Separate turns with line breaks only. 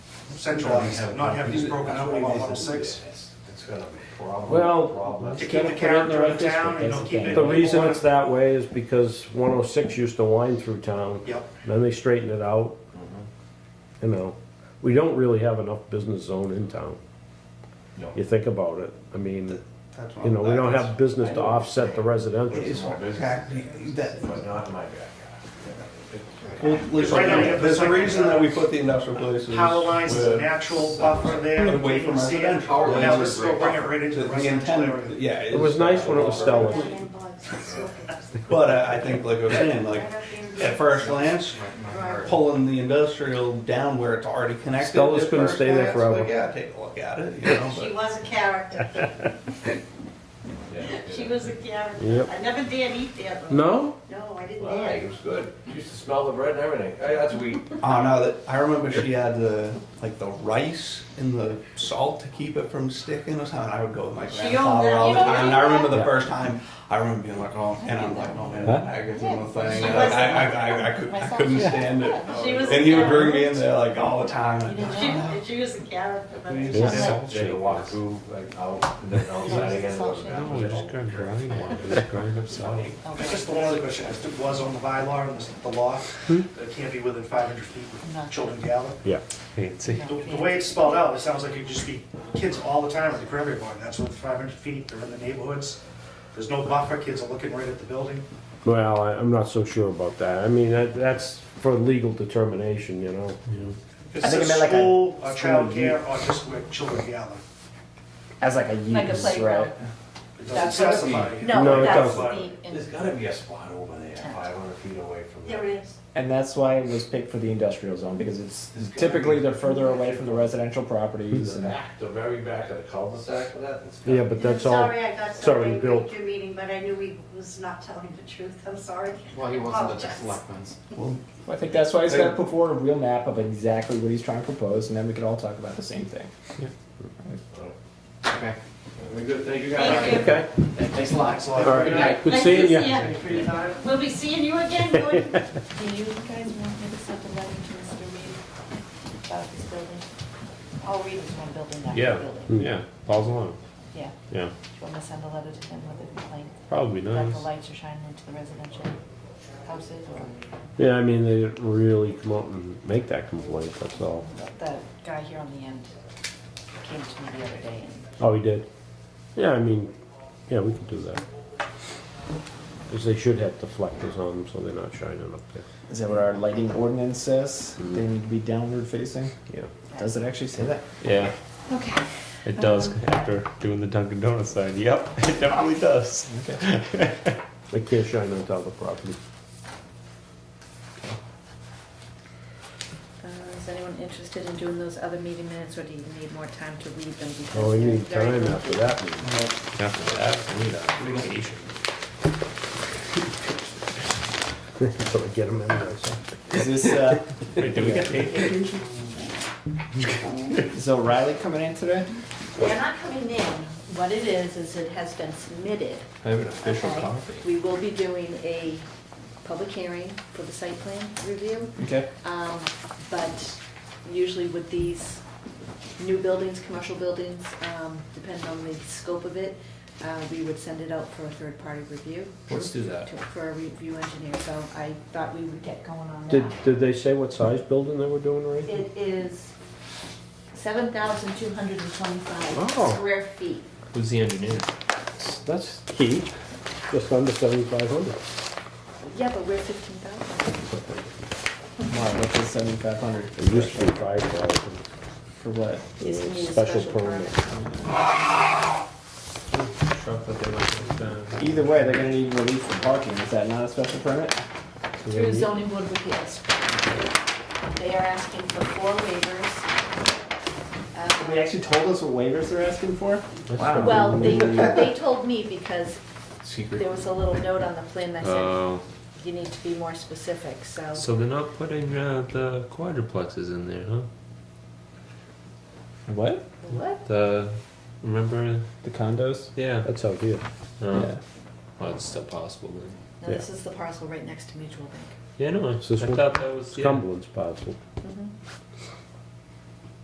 centralized, not have these broken up along 106.
It's got a problem.
Well,
problem.
To keep the character of town and don't keep it.
The reason it's that way is because one oh six used to wind through town,
Yep,
then they straightened it out. You
Mm-hmm.
know, we don't really have enough business zone in town.
No.
You think about it, I mean,
that's
you know,
what,
we don't have business to offset the residential.
Small business,
Exactly, that,
but not in my backyard.
Well, listen,
Right now, you have
there's
the
a reason that we
second-
put the industrial places.
power lines is a
where-
natural buffer there, you
Away
can
from
see it.
residential.
Now this will bring it right into
To
the residential
intent-
area.
Yeah.
It was nice when it was Stella's.
But I, I think, like I was saying, like, at first glance, pulling the industrial down where it's already connected.
Stella's
at
couldn't
first
stay there
glance,
forever.
Like, yeah, take a look at it, you know,
She
but
was a character.
Yeah.
She was a character.
Yep.
I never dared eat there though.
No?
No, I didn't
Why, it
dare.
was good, You used to smell the bread and everything, Hey, that's wheat.
Oh no! That, I remember she had the like the rice and the salt to keep it from sticking or something. I would go with my
She owned
grandfather
that.
all the
You don't
time. And I
own
remember
that?
the first time. I remember being like, oh, and I'm like, oh man,
Huh?
I could do the thing.
She
and
was-
I, I, I, I, could, I couldn't stand it.
She was.
And
a
he would bring me
character.
in there like all the time. And,
She, she was a character. but-
Yeah.
Then- Then you walk through, like, out, and then outside again. go to the bathroom.
It's just the one other question, if it was on the bylaw and the- the law, that it can't be within 500 feet of children gather.
Yeah.
The the way it's spelled out, it sounds like it'd just be kids all the time at the Cranberry Barn, that's what, 500 feet, they're in the neighborhoods, there's no buffer, kids are looking right at the building.
Well, I, I'm not so sure about that. I mean, that, that's for legal determination, you know?
It
I think
says
it meant like a
school, or
school
childcare, or just where children gather.
As like a use,
Like a playground.
right?
It doesn't
That's what-
specify.
No,
No,
it
that's
doesn't.
the,
There's gotta be a spot over there, five hundred feet away from
There
there.
it is.
And that's why it was picked for the industrial zone because it's typically they're further away from the residential properties.
The
and-
back, the very back of the cul-de-sac for that. it's got-
Yeah, but that's all,
Sorry, I got
it's
so
already
angry
built.
at your meeting, but I knew he was not telling the truth. I'm sorry.
Well, he wasn't at the
Apologize.
selectmen's.
I think that's why he's got to put forward a real map of exactly what he's trying to propose, and then we can all talk about the same thing.
Okay.
Very good, thank you
Thank you.
guys.
okay?
Thanks a lot.
All right, good
Nice
seeing
to
you.
see ya. We'll be seeing you again, Gordon.
do you guys want me to send a letter to Mr. Reed about this building? All Reed is one building, not
Yeah.
one building.
Yeah, follows along.
Yeah.
Yeah,
Do you want me to send a letter to him with a complaint?
probably
That
nice.
the lights are shining into the residential houses or
Yeah, I mean, they didn't really come out and make that complaint, that's all.
the guy here on the end came to me the other day and
Oh, he did? Yeah, I mean, yeah, we can do that. Because they should have deflectors on them, so they're not shining up there.
Is that what our lighting ordinance says? They need to be downward facing.
Yeah.
Does it actually say that?
Yeah. Okay. It does
Um,
after doing the Dunkin' Donuts sign. Yep, it definitely does.
They can't shine on top of the property.
Uh, Is anyone interested in doing those other meeting minutes, or do you need more time to read them? because
Oh, we
they're
need
very
time
lengthy?
after that meeting.
After that, we need a vacation.
Until I get them in there, so.
Is this uh,
Wait, do we get paid?
is O'Reilly coming in today?
They're not coming in. What it is, is it has been submitted.
I have an official
okay? We will be doing a public hearing for the site plan review.
Okay.
Um, But usually with these new buildings, commercial buildings, um, depending on the scope of it, uh, we would send it out for a third-party review.
Let's do that.
to- For a review engineer, so I thought we would get going on that.
Did, did they say what size building they were doing right now?
It is seven thousand two hundred and twenty-five
Oh.
square feet.
Who's the engineer?
That's key, just under seventy-five hundred.
Yeah, but we're fifteen thousand.
Wow, that's a seventy-five hundred
It used to be five thousand.
for what?
Used to need a
Special
special permit.
Either way, they're gonna need relief for parking. Is that not a special permit?
Through zoning board of appeals. They are asking for four waivers.
They
Uh,
actually told us what waivers they're asking for.
Wow.
Well, they, they told me because
Secret.
there was a little note on the plan that said,
Oh,
you need to be more specific, so.
so they're not putting uh, the quadruplexes in there, huh?
What?
What?
The remember?
The condos?
Yeah.
That's out here.
Oh,
Yeah.
Well, it's still possible then.
No, this is the parcel right next to Mutual Bank.
Yeah, no, I,
Is this
I
one?
thought that was
It's
yeah.
Mm-hmm.
Cumberland's parcel.